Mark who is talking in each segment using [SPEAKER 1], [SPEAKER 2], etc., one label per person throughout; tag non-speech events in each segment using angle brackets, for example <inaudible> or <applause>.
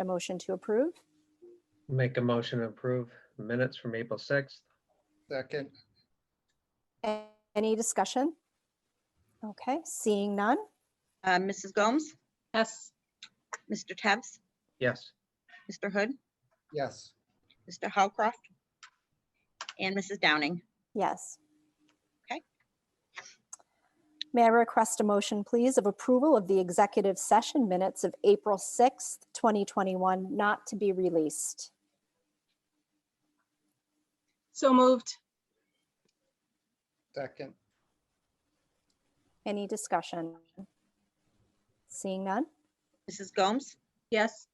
[SPEAKER 1] A motion to approve?
[SPEAKER 2] Make a motion to approve minutes from April 6th.
[SPEAKER 3] Second,
[SPEAKER 1] A- Any discussion? Okay, seeing none?
[SPEAKER 4] Uh, Mrs. Gomes,
[SPEAKER 5] yes,
[SPEAKER 4] Mr. Tebs,
[SPEAKER 2] Yes,
[SPEAKER 4] Mr. Hood,
[SPEAKER 3] yes,
[SPEAKER 4] Mr. Howcroft, and Mrs. Downing.
[SPEAKER 1] Yes.
[SPEAKER 4] Okay.
[SPEAKER 1] May I request a motion, please, of approval of the executive session minutes of April 6th, 2021, not to be released?
[SPEAKER 5] so moved,
[SPEAKER 3] second,
[SPEAKER 1] Any discussion? Seeing none?
[SPEAKER 4] Mrs. Gomes,
[SPEAKER 5] yes,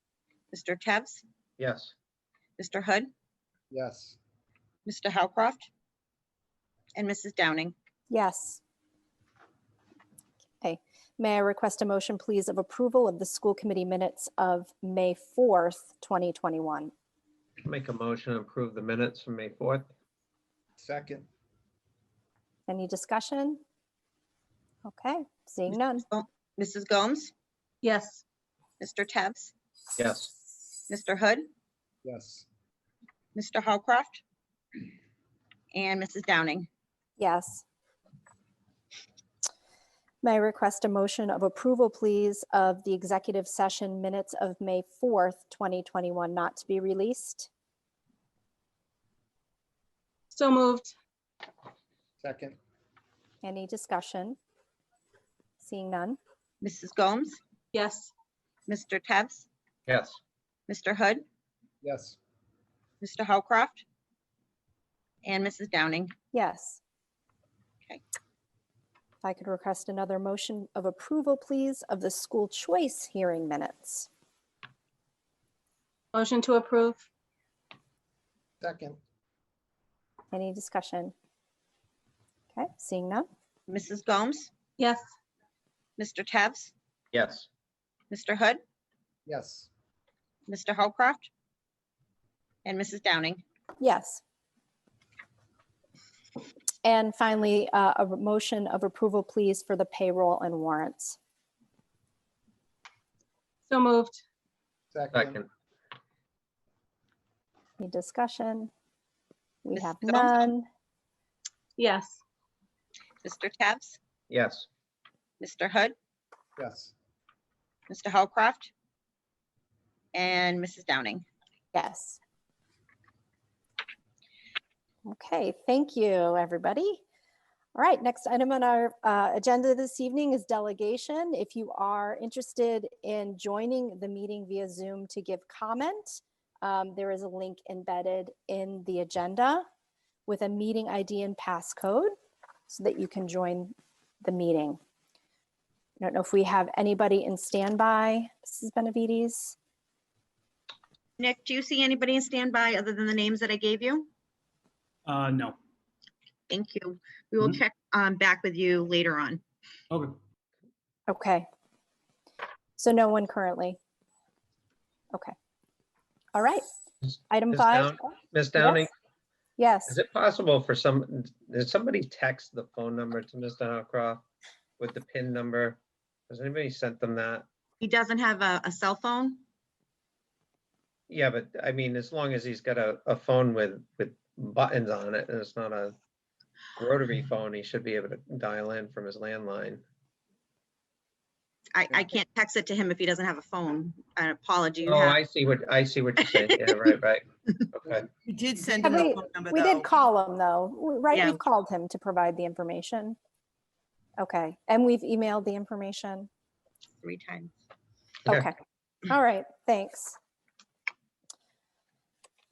[SPEAKER 4] Mr. Tebs,
[SPEAKER 2] yes,
[SPEAKER 4] Mr. Hood,
[SPEAKER 3] yes,
[SPEAKER 4] Mr. Howcroft, and Mrs. Downing.
[SPEAKER 1] Yes. Okay, may I request a motion, please, of approval of the school committee minutes of May 4th, 2021?
[SPEAKER 2] make a motion to approve the minutes from May 4th.
[SPEAKER 3] second,
[SPEAKER 1] Any discussion? Okay, seeing none.
[SPEAKER 4] Mrs. Gomes,
[SPEAKER 5] yes,
[SPEAKER 4] Mr. Tebs,
[SPEAKER 2] Yes,
[SPEAKER 4] Mr. Hood,
[SPEAKER 3] yes,
[SPEAKER 4] Mr. Howcroft, and Mrs. Downing.
[SPEAKER 1] Yes. May I request a motion of approval, please, of the executive session minutes of May 4th, 2021, not to be released?
[SPEAKER 5] so moved,
[SPEAKER 3] second,
[SPEAKER 1] Any discussion? Seeing none?
[SPEAKER 4] Mrs. Gomes,
[SPEAKER 5] yes,
[SPEAKER 4] Mr. Tebs,
[SPEAKER 2] yes,
[SPEAKER 4] Mr. Hood,
[SPEAKER 3] yes,
[SPEAKER 4] Mr. Howcroft, and Mrs. Downing.
[SPEAKER 1] Yes.
[SPEAKER 4] Okay.
[SPEAKER 1] If I could request another motion of approval, please, of the school choice hearing minutes.
[SPEAKER 5] motion to approve,
[SPEAKER 3] second,
[SPEAKER 1] Any discussion? Okay, seeing none?
[SPEAKER 4] Mrs. Gomes,
[SPEAKER 5] yes,
[SPEAKER 4] Mr. Tebs,
[SPEAKER 2] yes,
[SPEAKER 4] Mr. Hood,
[SPEAKER 3] yes,
[SPEAKER 4] Mr. Howcroft, and Mrs. Downing.
[SPEAKER 1] Yes. And finally, uh, a motion of approval, please, for the payroll and warrants.
[SPEAKER 5] so moved,
[SPEAKER 3] second,
[SPEAKER 2] second,
[SPEAKER 1] Any discussion? We
[SPEAKER 4] Ms.
[SPEAKER 1] have
[SPEAKER 4] Jones?
[SPEAKER 1] none.
[SPEAKER 5] yes,
[SPEAKER 4] Mr. Tebs,
[SPEAKER 2] yes,
[SPEAKER 4] Mr. Hood,
[SPEAKER 3] yes,
[SPEAKER 4] Mr. Howcroft, and Mrs. Downing.
[SPEAKER 1] Yes. Okay, thank you, everybody. All right, next item on our uh, agenda this evening is delegation. If you are interested in joining the meeting via Zoom to give comment, um, there is a link embedded in the agenda with a meeting ID and passcode so that you can join the meeting. I don't know if we have anybody in standby, Mrs. Benavides?
[SPEAKER 4] Nick, do you see anybody in standby other than the names that I gave you?
[SPEAKER 6] Uh, no.
[SPEAKER 4] Thank you. We will
[SPEAKER 6] Mhm.
[SPEAKER 4] check um, back with you later on.
[SPEAKER 6] Okay.
[SPEAKER 1] Okay. So no one currently? Okay. All right.
[SPEAKER 2] Is-
[SPEAKER 1] Item
[SPEAKER 2] is
[SPEAKER 1] five?
[SPEAKER 2] down- Ms. Downing,
[SPEAKER 1] Yes,
[SPEAKER 2] is it possible for some, did somebody text the phone number to Mr. Howcroft with the PIN number? Has anybody sent them that?
[SPEAKER 4] He doesn't have a, a cell phone.
[SPEAKER 2] Yeah, but I mean, as long as he's got a, a phone with, with buttons on it and it's not a rotary phone, he should be able to dial in from his landline.
[SPEAKER 4] I, I can't text it to him if he doesn't have a phone. An apology. you
[SPEAKER 2] Oh,
[SPEAKER 4] have-
[SPEAKER 2] I see what, I see what you're saying. Yeah, right,
[SPEAKER 4] <laughs>
[SPEAKER 2] right. Okay,
[SPEAKER 7] We did send
[SPEAKER 1] Have
[SPEAKER 7] him the
[SPEAKER 1] we-
[SPEAKER 7] phone number,
[SPEAKER 1] we
[SPEAKER 7] though.
[SPEAKER 1] did call him though, W- right?
[SPEAKER 4] Yeah.
[SPEAKER 1] We've called him to provide the information. Okay, and we've emailed the information.
[SPEAKER 4] Three times.
[SPEAKER 2] Yeah.
[SPEAKER 1] Okay, all right, thanks.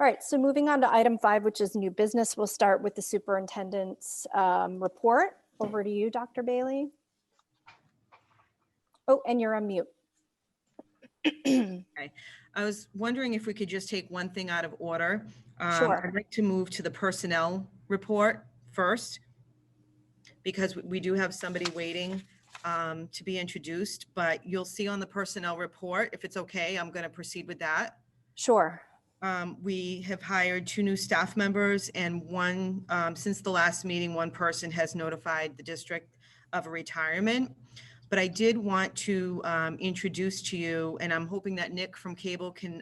[SPEAKER 1] All right, so moving on to item five, which is new business, we'll start with the superintendent's um, report. Over to you, Dr. Bailey. Oh, and you're on mute.
[SPEAKER 7] I was wondering if we could just take one thing out of order. Um,
[SPEAKER 1] Sure.
[SPEAKER 7] I'd like to move to the personnel report first, because we- we do have somebody waiting um, to be introduced, but you'll see on the personnel report, if it's okay, I'm going to proceed with that.
[SPEAKER 1] Sure.
[SPEAKER 7] Um, We have hired two new staff members and one, um, since the last meeting, one person has notified the district of a retirement. But I did want to um, introduce to you, and I'm hoping that Nick from Cable can